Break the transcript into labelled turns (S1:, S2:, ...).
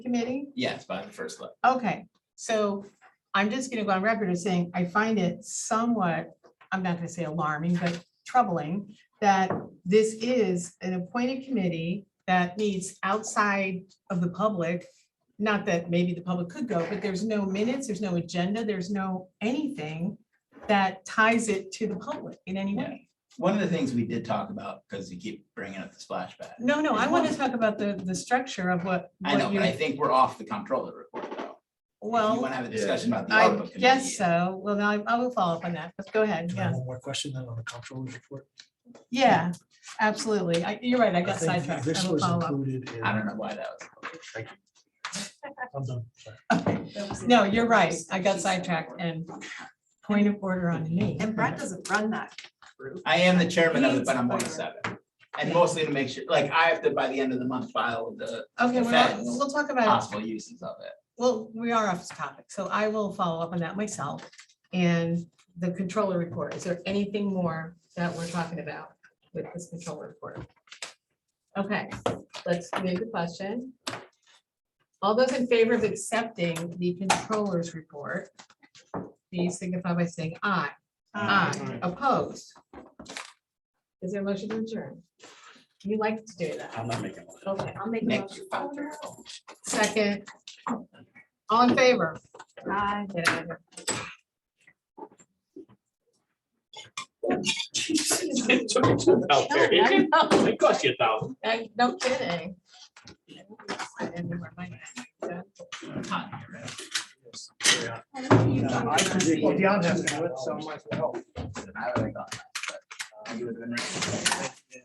S1: committee?
S2: Yes, by the first look.
S1: Okay, so I'm just gonna go on record as saying, I find it somewhat, I'm not gonna say alarming, but troubling that this is an appointed committee that meets outside of the public. Not that maybe the public could go, but there's no minutes, there's no agenda, there's no anything that ties it to the public in any way.
S2: One of the things we did talk about, because you keep bringing up the splash pad.
S1: No, no, I want to talk about the, the structure of what.
S2: I
S1: what
S2: know, but
S1: you-
S2: I think we're off the comptroller report though.
S1: Well.
S2: You want to have a discussion about the ARPA
S1: I
S2: committee.
S1: guess so. Well, now I- I will follow up on that. Let's go ahead.
S3: Can I have
S1: Yeah,
S3: One more question then on the comptroller's report.
S1: yeah, absolutely. I- You're right. I got
S3: think
S1: sidetracked.
S3: This
S1: I will
S3: was
S1: follow up.
S3: included in.
S2: I don't know why that was.
S3: I'm done. Sorry.
S1: No, you're right. I got sidetracked and point of order on me.
S4: And Brad doesn't run that group.
S2: I am the chairman of it,
S4: Needs
S2: but I'm one of
S4: better.
S2: seven. And mostly to make sure, like, I have to, by the end of the month, file the
S1: Okay, we're not-
S2: Facts.
S1: we'll talk about, it.
S2: possible uses of it.
S1: well, we are off topic, so I will follow up on that myself. And the controller report, is there anything more that we're talking about with this controller report? Okay, let's move the question. All those in favor of accepting the controller's report, please signify by saying aye. Aye, opposed. Is there a motion to adjourn? You like to do that.
S5: I'm not making one.
S1: Okay, I'll make a
S2: Nick,
S1: motion.
S2: you filed your-
S1: Second. All in favor?
S4: Aye.
S1: Get out of here.
S5: It took me two
S1: Oh,
S5: thousand. It cost you a thousand.
S1: I- No kidding. I didn't remember my name.
S2: Hot here, right?
S3: I predict-
S5: Well, Dion has to do it, so I might as well.
S2: I would've gone, but you would've been right.